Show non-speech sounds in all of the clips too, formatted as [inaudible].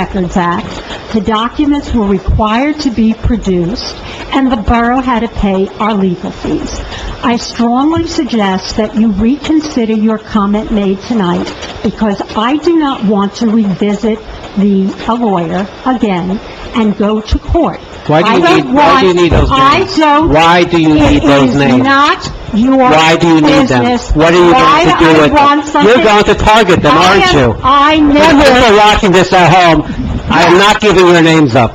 Records Act, the documents were required to be produced, and the borough had to pay our legal fees. I strongly suggest that you reconsider your comment made tonight, because I do not want to revisit the, a lawyer again and go to court. Why do you I don't need- why do you want- need those names? I don't... Why do you need those It is names? not your business. Why do you need them? What are you going to do with Why I want them? something... You're going to target them, I aren't am- you? I If never, you're watching this at home, I am not giving your names up.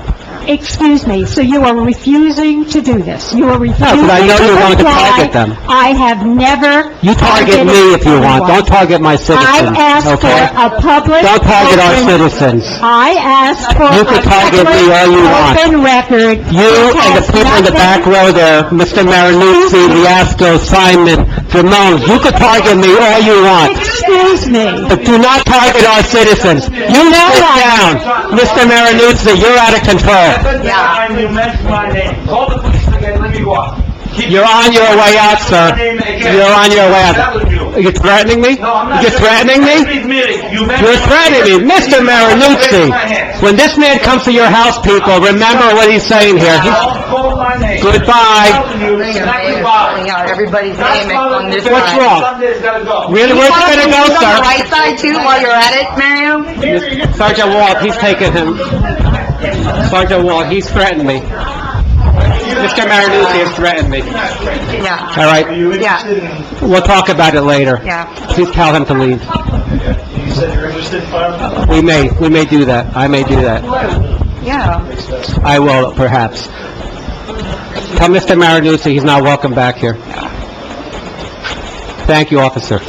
excuse me, so you are refusing to do this? You are refusing to but I know you're going to comply. target them. I have never... You target me if you want, don't target my I citizens, asked for okay? a public... Don't target our open- citizens. I asked for You can target me all you want. a public, open record. You It and the has people in the back nothing- row there, Mr. Marinuzzi, Liasco, Simon, Jamon, you could target me all you want, Excuse me. but do not target our citizens. You sit down. Mr. Marinuzzi, you're out of control. Second time you mentioned my name, call the police again, let me go out. Keep- You're on your way out, sir. You're on your way out. That was you. You're threatening me? No, I'm not. You're threatening me? Please, Mary, you mentioned. You're threatening me, Mr. Raise Marinuzzi. my hand. When this man comes to your house, people, remember what he's saying here. He's- I'll call my name. Goodbye. I'm telling you, not Calling goodbye. out everybody's That's name on this why- What's side. wrong? Somebody's gotta go. Really, where's it gonna go, On the sir? right side too, while you're at it, Mario? Sergeant Walt, he's taking him. Sergeant Walt, he's threatened me. Mr. Marinuzzi has threatened me. Yeah, All right, You Yeah. interested in, we'll talk about it later. yeah. Please tell him to leave. you said you're interested in firearms? We may, we may do that. I may do that. Yeah. I will, perhaps. Tell Mr. Marinuzzi he's not welcome back here. Thank you, officer.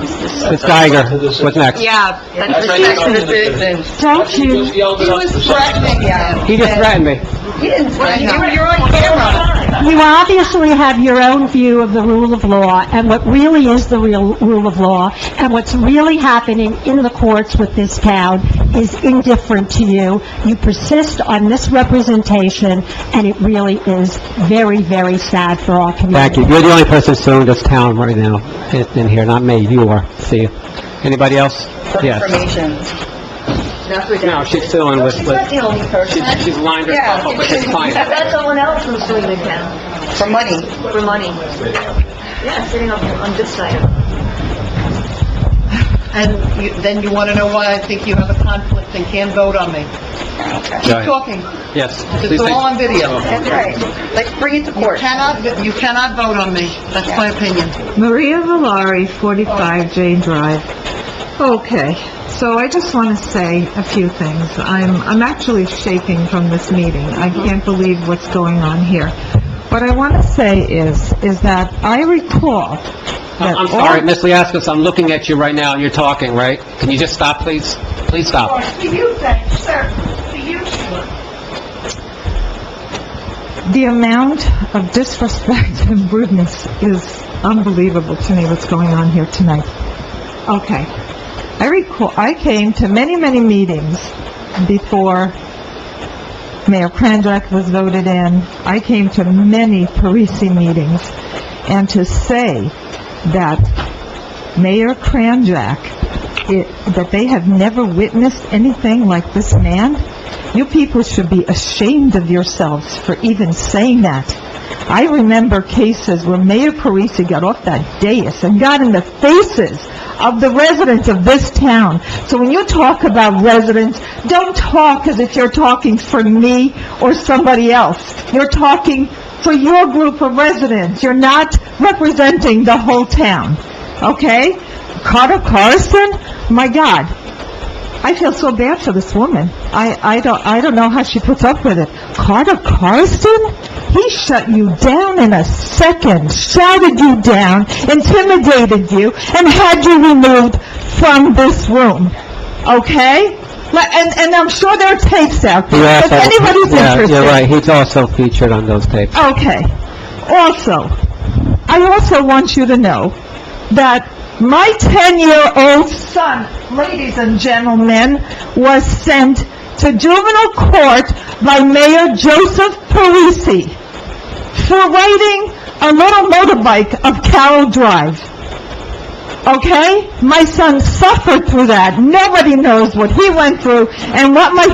Ms. Geiger, what's next? Yeah. That's protection of citizens. Don't you... He was threatening him. He just threatened me. He didn't threaten him. You're on camera. You obviously have your own view of the rule of law and what really is the real rule of law and what's really happening in the courts with this town is indifferent to you. You persist on misrepresentation and it really is very, very sad for our Thank you. community. You're the only person suing this town right now in- in here, not me. You are. See you. Anybody else? Yes. Information. That's what. No, she's suing with, with- the only person. she's lined herself up with his client. That's someone else who's doing it now. For money. For money. Yeah, sitting up on this side. And you- then you want to know why I think you have a conflict and can't vote on me. Keep talking. Yes. please It's take- Oh. all on video. That's right. Let's bring it to court. Cannot, you cannot vote on me. That's my opinion. Maria Valari, 45 Jane Drive. Okay, so I just want to say a few things. I'm, I'm actually shaking from this meeting. I can't believe what's going on here. What I want to say is, is that I recall that I'm all- sorry, Ms. Liascos, I'm looking at you right now and you're talking, right? Can you just stop, please? Please stop. The amount of disrespect [laughs] and rudeness is unbelievable to me, what's going on here tonight. Okay. I recall, I came to many, many meetings before Mayor Kranjak was voted in. I came to many Parisi meetings, and to say that Mayor Kranjak, it- that they have never witnessed anything like this man, you people should be ashamed of yourselves for even saying that. I remember cases where Mayor Parisi got off that dais and got in the faces of the residents of this town. So when you talk about residents, don't talk as if you're talking for me or somebody else. You're talking for your group of residents. You're not representing the whole town, okay? Carter Carson, my God, I feel so bad for this woman. I, I don't, I don't know how she puts up with it. Carter Carson? He shut you down in a second, shouted you down, intimidated you, and had you removed from this room. Okay? Like, and, and I'm sure there are tapes out there, if anybody's Yeah, interested. you're right. He's also featured on those tapes. Okay. Also, I also want you to know that my 10-year-old son, ladies and gentlemen, was sent to juvenile court by Mayor Joseph Parisi for riding a little motorbike up Carroll Drive. Okay? My son suffered through that. Nobody knows what he went through and what my